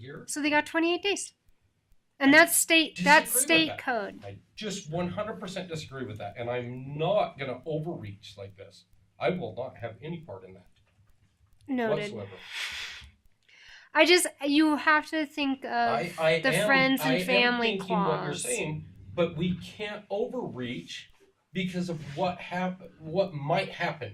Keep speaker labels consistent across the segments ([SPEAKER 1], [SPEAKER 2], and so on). [SPEAKER 1] year.
[SPEAKER 2] So they got 28 days. And that's state that's
[SPEAKER 1] Disagree with
[SPEAKER 2] state
[SPEAKER 1] that.
[SPEAKER 2] code.
[SPEAKER 1] I just 100% disagree with that, and I'm not going to overreach like this. I will not have any part in that
[SPEAKER 2] Noted.
[SPEAKER 1] whatsoever.
[SPEAKER 2] I just you have to think of
[SPEAKER 1] I, I
[SPEAKER 2] the
[SPEAKER 1] am,
[SPEAKER 2] friends and
[SPEAKER 1] I am
[SPEAKER 2] family
[SPEAKER 1] thinking what you're
[SPEAKER 2] clause.
[SPEAKER 1] saying, but we can't overreach because of what hap- what might happen,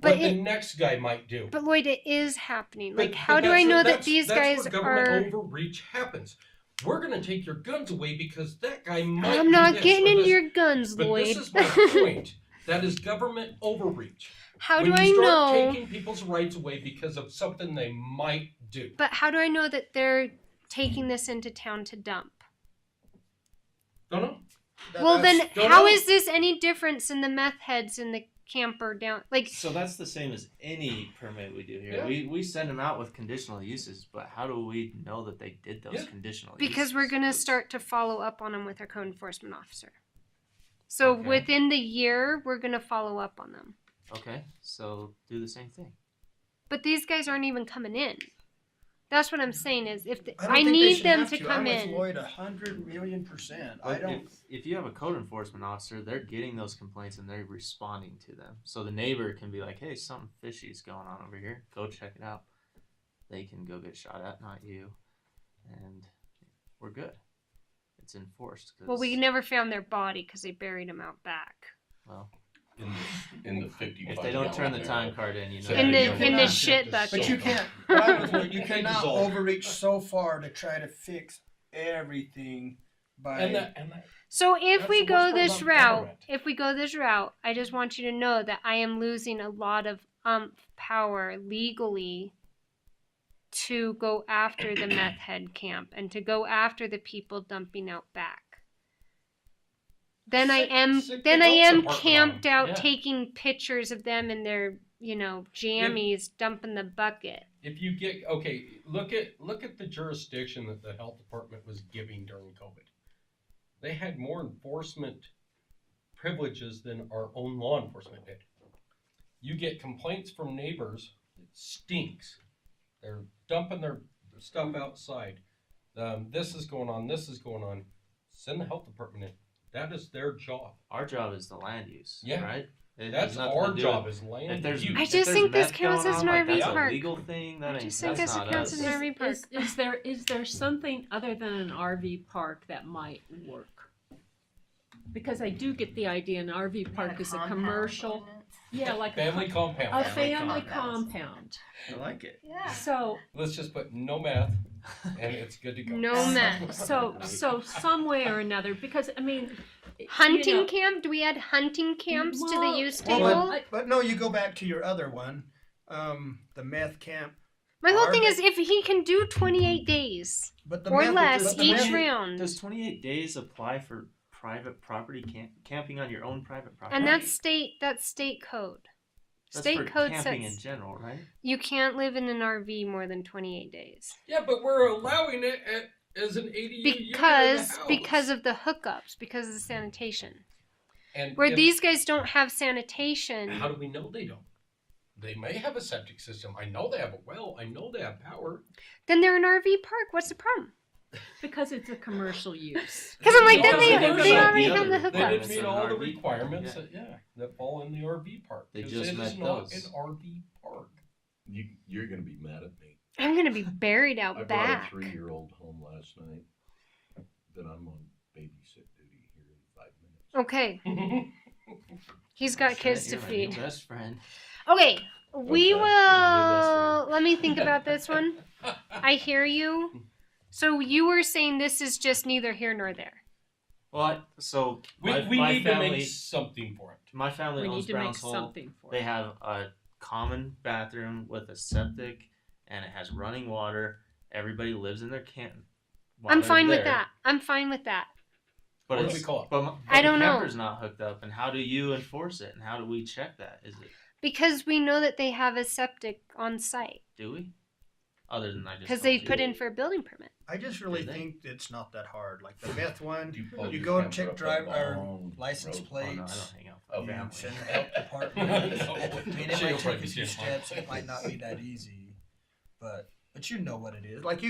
[SPEAKER 2] but
[SPEAKER 1] what
[SPEAKER 2] it
[SPEAKER 1] the next guy might do.
[SPEAKER 2] but Lloyd it is happening.
[SPEAKER 1] But-
[SPEAKER 2] Like
[SPEAKER 1] but
[SPEAKER 2] how do
[SPEAKER 1] that's
[SPEAKER 2] I
[SPEAKER 1] it.
[SPEAKER 2] know that
[SPEAKER 1] That's-
[SPEAKER 2] these
[SPEAKER 1] that's
[SPEAKER 2] guys
[SPEAKER 1] where government
[SPEAKER 2] are
[SPEAKER 1] overreach happens? We're gonna take your guns away because that guy might.
[SPEAKER 2] I'm
[SPEAKER 1] do
[SPEAKER 2] not
[SPEAKER 1] this
[SPEAKER 2] getting
[SPEAKER 1] or
[SPEAKER 2] into
[SPEAKER 1] this.
[SPEAKER 2] your guns,
[SPEAKER 1] But
[SPEAKER 2] Lloyd.
[SPEAKER 1] this is my point. That is government overreach.
[SPEAKER 2] how
[SPEAKER 1] when
[SPEAKER 2] do I
[SPEAKER 1] you
[SPEAKER 2] know
[SPEAKER 1] start taking people's rights away because of something they might do?
[SPEAKER 2] but how do I know that they're taking this into town to dump?
[SPEAKER 1] Don't know.
[SPEAKER 3] That-
[SPEAKER 2] well
[SPEAKER 3] that's-
[SPEAKER 2] then
[SPEAKER 1] don't
[SPEAKER 2] how
[SPEAKER 1] know.
[SPEAKER 2] is this any difference in the meth heads and the camper down like
[SPEAKER 3] So that's the same as any permit we do here.
[SPEAKER 1] Yeah.
[SPEAKER 3] We we send them out with conditional uses, but how do we know that they did those
[SPEAKER 1] Yeah.
[SPEAKER 3] conditional uses?
[SPEAKER 2] because we're going to start to follow up on them with our code enforcement officer. So
[SPEAKER 3] Okay.
[SPEAKER 2] within the year, we're going to follow up on them.
[SPEAKER 3] Okay, so do the same thing.
[SPEAKER 2] But these guys aren't even coming in. That's what I'm saying is if the,
[SPEAKER 4] don't
[SPEAKER 2] I,
[SPEAKER 4] think they
[SPEAKER 2] need
[SPEAKER 4] should
[SPEAKER 2] them
[SPEAKER 4] have
[SPEAKER 2] to
[SPEAKER 4] I'm
[SPEAKER 2] come
[SPEAKER 4] with
[SPEAKER 2] in.
[SPEAKER 4] Lloyd, a hundred million percent. I
[SPEAKER 3] But
[SPEAKER 4] don't.
[SPEAKER 3] If, if you have a code enforcement officer, they're getting those complaints and they're responding to them. So the neighbor can be like, "Hey, something fishy is going on over here. Go check it out." They can go get shot at, not you, and we're good. It's enforced. 'cause-
[SPEAKER 2] Well, we never found their body because they buried him out back
[SPEAKER 3] well,
[SPEAKER 5] in the, in the 50
[SPEAKER 3] if they don't turn the time card in, you know.
[SPEAKER 5] So
[SPEAKER 2] in
[SPEAKER 3] they're
[SPEAKER 2] the
[SPEAKER 3] doing
[SPEAKER 2] in
[SPEAKER 3] it.
[SPEAKER 2] the
[SPEAKER 4] Yeah.
[SPEAKER 2] shit bucket.
[SPEAKER 4] But you can't. what I'm with Lloyd, you cannot overreach so far to try to fix everything by.
[SPEAKER 1] And that, and that,
[SPEAKER 2] So if
[SPEAKER 1] That's
[SPEAKER 2] we
[SPEAKER 1] the
[SPEAKER 2] go
[SPEAKER 1] worst part
[SPEAKER 2] this
[SPEAKER 1] about
[SPEAKER 2] route,
[SPEAKER 1] government.
[SPEAKER 2] if we go this route, I just want you to know that I am losing a lot of umph power legally to go after the meth head camp and to go after the people dumping out back. Then I
[SPEAKER 1] Sick-
[SPEAKER 2] am
[SPEAKER 1] sick
[SPEAKER 2] then I
[SPEAKER 1] adults
[SPEAKER 2] am
[SPEAKER 1] apartment
[SPEAKER 2] camped
[SPEAKER 1] on 'em,
[SPEAKER 2] out
[SPEAKER 1] yeah.
[SPEAKER 2] taking pictures of them in their, you know, jammies dumping the bucket.
[SPEAKER 1] if you get okay, look at look at the jurisdiction that the health department was giving during COVID. They had more enforcement privileges than our own law enforcement did. You get complaints from neighbors. It stinks. They're dumping their stuff outside. Um, this is going on. This is going on. Send the health department in. That is their job.
[SPEAKER 3] Our job is the land use.
[SPEAKER 1] Yeah.
[SPEAKER 3] Right. It has
[SPEAKER 1] That's
[SPEAKER 3] nothing to
[SPEAKER 1] our
[SPEAKER 3] do
[SPEAKER 1] job
[SPEAKER 3] with-
[SPEAKER 1] as land
[SPEAKER 3] If there's,
[SPEAKER 1] use.
[SPEAKER 2] I
[SPEAKER 3] if
[SPEAKER 2] just
[SPEAKER 3] there's
[SPEAKER 2] think this
[SPEAKER 3] meth
[SPEAKER 2] counts
[SPEAKER 3] going
[SPEAKER 2] as
[SPEAKER 3] on,
[SPEAKER 2] an
[SPEAKER 3] like,
[SPEAKER 2] RV
[SPEAKER 3] that's
[SPEAKER 2] park.
[SPEAKER 3] A legal thing. That
[SPEAKER 2] I
[SPEAKER 3] ain't,
[SPEAKER 2] just think
[SPEAKER 3] that's
[SPEAKER 2] this
[SPEAKER 3] not
[SPEAKER 2] counts
[SPEAKER 3] us.
[SPEAKER 2] as an RV park.
[SPEAKER 6] Is, is there is there something other than an RV park that might work? Because I do get the idea an RV park is a commercial, yeah, like a
[SPEAKER 1] family
[SPEAKER 6] co-
[SPEAKER 1] compound.
[SPEAKER 6] a
[SPEAKER 3] family
[SPEAKER 6] family
[SPEAKER 3] compounds.
[SPEAKER 6] compound.
[SPEAKER 4] I like it.
[SPEAKER 7] Yeah.
[SPEAKER 6] So
[SPEAKER 1] Let's just put no math, and it's good to go.
[SPEAKER 2] No
[SPEAKER 6] so
[SPEAKER 2] meth.
[SPEAKER 6] so so some way or another because I mean you
[SPEAKER 2] Hunting
[SPEAKER 6] know,
[SPEAKER 2] camp? Do we add hunting camps to the
[SPEAKER 6] Well,
[SPEAKER 2] use
[SPEAKER 6] well,
[SPEAKER 2] table?
[SPEAKER 4] but-
[SPEAKER 6] I-
[SPEAKER 4] But no, you go back to your other one, um, the meth camp.
[SPEAKER 2] My whole
[SPEAKER 4] Are
[SPEAKER 2] thing
[SPEAKER 4] they-
[SPEAKER 2] is if he can do 28 days
[SPEAKER 4] But the
[SPEAKER 2] or
[SPEAKER 4] meth,
[SPEAKER 2] less
[SPEAKER 4] but the
[SPEAKER 2] each
[SPEAKER 4] meth-
[SPEAKER 2] round,
[SPEAKER 3] Does 28 days apply for private property camp- camping on your own private property?
[SPEAKER 2] and that's state that's state code.
[SPEAKER 3] That's for
[SPEAKER 2] state code
[SPEAKER 3] camping in
[SPEAKER 2] says
[SPEAKER 3] general, right?
[SPEAKER 2] you can't live in an RV more than 28 days
[SPEAKER 1] Yeah, but we're allowing it at, as an ADU unit in the
[SPEAKER 2] because
[SPEAKER 1] house.
[SPEAKER 2] because of the hookups because of the sanitation.
[SPEAKER 1] and
[SPEAKER 2] Where
[SPEAKER 1] if-
[SPEAKER 2] these guys don't have sanitation,
[SPEAKER 1] How do we know they don't? They may have a septic system. I know they have a well. I know they have power.
[SPEAKER 2] then they're an RV park. What's the problem?
[SPEAKER 6] because it's a commercial use.
[SPEAKER 2] Because I'm like,
[SPEAKER 1] Yeah,
[SPEAKER 2] then they
[SPEAKER 1] but
[SPEAKER 2] they
[SPEAKER 1] they're
[SPEAKER 2] already
[SPEAKER 3] not
[SPEAKER 2] have
[SPEAKER 3] the
[SPEAKER 2] the
[SPEAKER 3] other-
[SPEAKER 1] They didn't
[SPEAKER 2] hookups.
[SPEAKER 3] Requirements
[SPEAKER 1] meet
[SPEAKER 3] of an
[SPEAKER 1] all the
[SPEAKER 3] RV
[SPEAKER 1] requirements
[SPEAKER 3] park,
[SPEAKER 1] that yeah that fall in the RV park.
[SPEAKER 3] They
[SPEAKER 1] 'Cause
[SPEAKER 3] just
[SPEAKER 1] it is
[SPEAKER 3] met
[SPEAKER 1] not
[SPEAKER 3] those.
[SPEAKER 1] an RV park.
[SPEAKER 5] You, you're going to be mad at me.
[SPEAKER 2] I'm gonna be buried out
[SPEAKER 5] I brought a
[SPEAKER 2] back.
[SPEAKER 5] three year old home last night that I'm on babysit duty here in five minutes.
[SPEAKER 2] Okay, he's got
[SPEAKER 3] Shit,
[SPEAKER 2] kids to
[SPEAKER 3] you're my new
[SPEAKER 2] feed.
[SPEAKER 3] best friend.
[SPEAKER 2] Okay, we
[SPEAKER 3] Okay, you're my new best
[SPEAKER 2] will. Let me think about this one. I hear you. So you were saying this is just neither here nor there.
[SPEAKER 3] Well, I, so
[SPEAKER 1] we
[SPEAKER 3] my,
[SPEAKER 1] we
[SPEAKER 3] my
[SPEAKER 1] need
[SPEAKER 3] family,
[SPEAKER 1] to make something for it.
[SPEAKER 3] my family
[SPEAKER 6] We
[SPEAKER 3] owns
[SPEAKER 6] need to make
[SPEAKER 3] Browns Hole.
[SPEAKER 6] something for
[SPEAKER 3] They
[SPEAKER 6] it.
[SPEAKER 3] have a common bathroom with a septic, and it has running water. Everybody lives in their camp. while
[SPEAKER 2] I'm
[SPEAKER 3] they're
[SPEAKER 2] fine with
[SPEAKER 3] there.
[SPEAKER 2] that. I'm fine with that.
[SPEAKER 3] But
[SPEAKER 1] What do
[SPEAKER 3] it's,
[SPEAKER 1] we call it?
[SPEAKER 3] But, my-
[SPEAKER 2] I
[SPEAKER 3] but
[SPEAKER 2] don't
[SPEAKER 3] the
[SPEAKER 2] know.
[SPEAKER 3] camper's not hooked up, and how do you enforce it? And how do we check that? Is it
[SPEAKER 2] Because we know that they have a septic on site
[SPEAKER 3] do we? Other than I just
[SPEAKER 2] because
[SPEAKER 3] told
[SPEAKER 2] they
[SPEAKER 3] you.
[SPEAKER 2] put in for a building permit.
[SPEAKER 4] I just really
[SPEAKER 3] Did they?
[SPEAKER 4] think it's not that hard. Like the meth one,
[SPEAKER 5] You, pull
[SPEAKER 4] You
[SPEAKER 5] your
[SPEAKER 4] go and
[SPEAKER 5] camper
[SPEAKER 4] check
[SPEAKER 5] up a
[SPEAKER 4] drive- or
[SPEAKER 5] long
[SPEAKER 4] license
[SPEAKER 5] road.
[SPEAKER 3] Oh, no, I
[SPEAKER 4] plates.
[SPEAKER 3] don't hang out.
[SPEAKER 5] Oh,
[SPEAKER 3] with
[SPEAKER 4] Yeah,
[SPEAKER 3] family.
[SPEAKER 4] send it out the park. I mean, it
[SPEAKER 1] She'll
[SPEAKER 4] might take
[SPEAKER 1] probably
[SPEAKER 4] a few
[SPEAKER 1] stand fine.
[SPEAKER 4] steps. It might not be that easy, but but you know what it is. Like you.